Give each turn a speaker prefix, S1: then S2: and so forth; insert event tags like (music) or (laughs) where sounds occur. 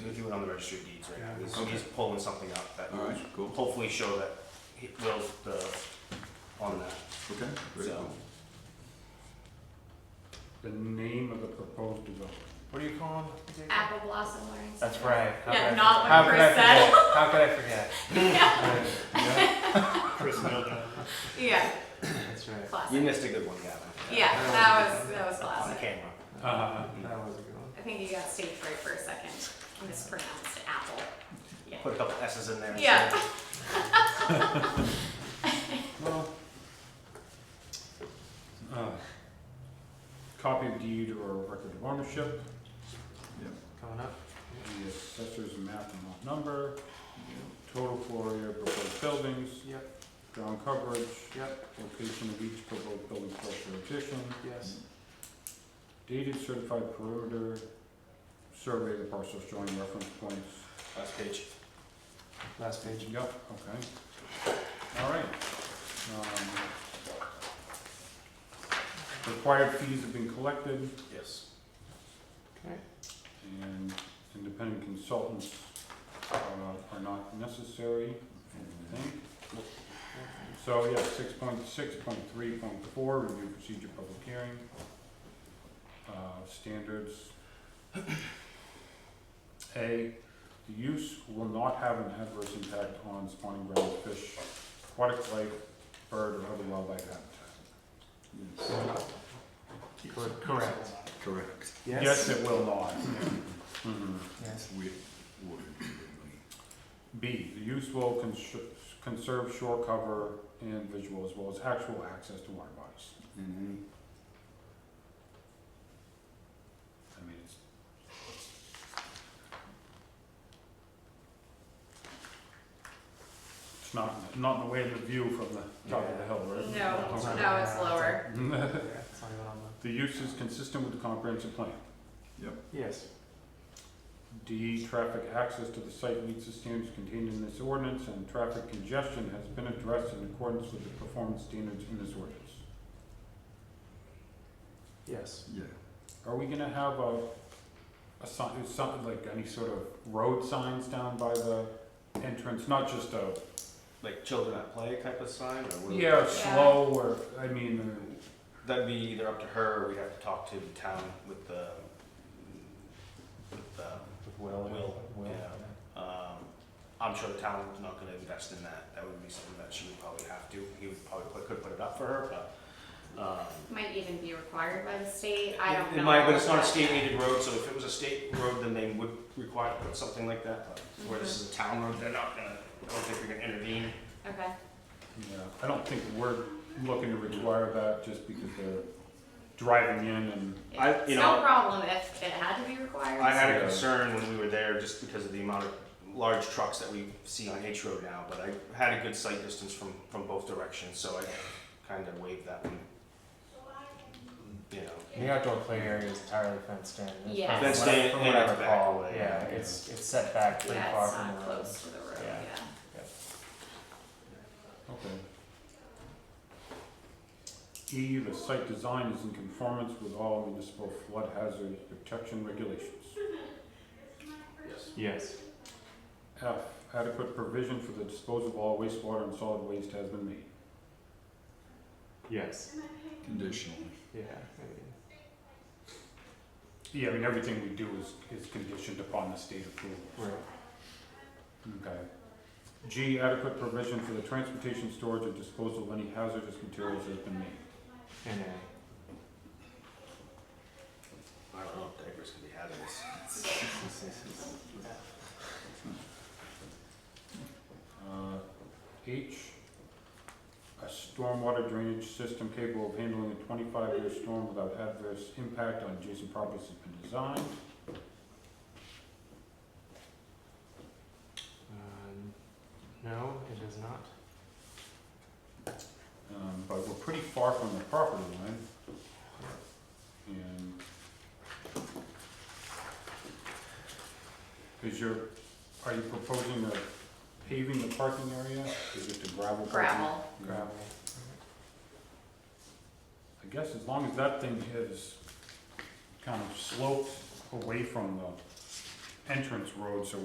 S1: We're doing it on the registry of deeds right now. He's-
S2: Okay.
S1: He's pulling something up that
S2: All
S1: will
S2: right, cool.
S1: hopefully show that he Will's the, on that.
S2: Okay, very
S1: So-
S2: cool.
S3: The name of the proposed development.
S1: What do you call him?
S4: Apple Blossom Learning
S5: That's
S4: Center.
S5: right. How
S4: Yeah,
S5: could I
S4: not
S5: forget?
S4: what
S5: How could
S4: Chris
S5: I
S4: said.
S5: forget? How could I
S4: (laughs)
S5: forget?
S1: Chris Milda.
S4: Yeah,
S5: That's right.
S4: classic.
S1: You missed a good one, Gavin.
S4: Yeah, that was that was
S1: On
S4: classic.
S1: camera. Uh-huh.
S3: Uh,
S5: That was a good one.
S4: I think you got stage fright for a second. You mispronounced apple. Yeah.
S1: Put a couple S's in there.
S4: Yeah.
S1: instead.
S2: Well,
S3: uh, Copy of deed or record of ownership,
S5: Coming up.
S3: the assessor's map and lot number,
S2: yeah,
S3: total floor area of proposed buildings,
S5: Yep.
S3: ground coverage,
S5: Yep.
S3: location of each proposed building structure addition,
S5: Yes.
S3: dated certified perimeter, survey of the parcel showing reference points.
S1: Last page.
S5: Last page.
S3: Yep, okay. All right. Um, Required fees have been collected.
S1: Yes.
S5: Okay.
S3: and independent consultants uh, are not necessary, I think. So, yeah, six point six point three point four, review procedure public hearing, uh, standards. A, the use will not have an adverse impact on spawning grounds, fish, aquatic life, bird, or other wildlife habitat.
S2: yes,
S5: Cor- Correct.
S2: correct.
S3: Yes, it will not. Mhm.
S1: (laughs)
S5: Yes.
S2: We, we,
S3: B, the use will cons- conserve shore cover and visual as well as actual access to water bodies.
S2: and
S3: I mean, it's. It's not, not in the way of the view from the top of the hill, right?
S4: No, no, it's lower.
S5: Yeah, it's not even on
S3: (laughs) The use is consistent with the comprehensive plan.
S5: the- Yes.
S3: D, traffic access to the site meets the standards contained in this ordinance and traffic congestion has been addressed in accordance with the performance standards in this ordinance.
S5: Yes.
S2: yeah,
S3: Are we gonna have a, a sign, something like any sort of road signs down by the entrance, not just a,
S1: Like children at play type of sign or what?
S3: yeah, slow or, I mean, uh,
S1: That'd be either up to her or we'd have to talk to the town with the, with the,
S5: With Will.
S1: Will, yeah. um, I'm sure the town's not gonna invest in that. That would be something that she would probably have to. He would probably put, could put it up for her, but, um,
S4: Might even be required by the state. I don't
S1: It-
S4: know.
S1: It might, but it's not a state needed road, so if it was a state road, then they would require to put something like that, but where this is a town road, they're not gonna, I don't think they're gonna intervene.
S4: Okay.
S3: yeah, I don't think we're looking to require that just because they're driving in and,
S1: I- you
S4: It's
S1: know-
S4: no problem if it had to be required.
S1: I had a
S3: Yeah.
S1: concern when we were there, just because of the amount of large trucks that we see on H Road now, but I had a good sight distance from, from both directions, so I kinda waved that one. You know,
S5: The outdoor play area is entirely fenced in. It's
S4: Yeah.
S5: From
S1: Fenced
S5: what I-
S1: in
S5: From
S1: and
S5: what I
S1: it's back
S5: recall,
S1: away.
S5: yeah, it's, it's set back pretty
S4: yeah,
S5: far
S4: it's
S5: from the road.
S4: not close to the road.
S5: Yeah.
S4: yeah.
S3: okay. E, the site design is in conformance with all municipal flood hazard protection regulations.
S1: yes.
S5: Yes.
S3: F, adequate provision for the disposal of all wastewater and solid waste has been made.
S5: Yes.
S2: conditional,
S5: Yeah.
S3: Yeah, E, I mean, everything we do is, is conditioned upon the state approval.
S5: Right.
S3: Okay. G, adequate provision for the transportation, storage, and disposal of any hazardous materials has been made.
S5: And
S1: I don't know if diapers can be hazardous.
S3: Uh, H, a stormwater drainage system capable of handling a twenty-five year storm without adverse impact on adjacent properties has been designed.
S5: Um, no, it is not.
S3: Um, but we're pretty far from the property line. And. Is your, are you proposing the paving the parking area, is it the gravel parking?
S4: Gravel.
S3: Gravel. I guess as long as that thing is kind of sloped away from the entrance road, so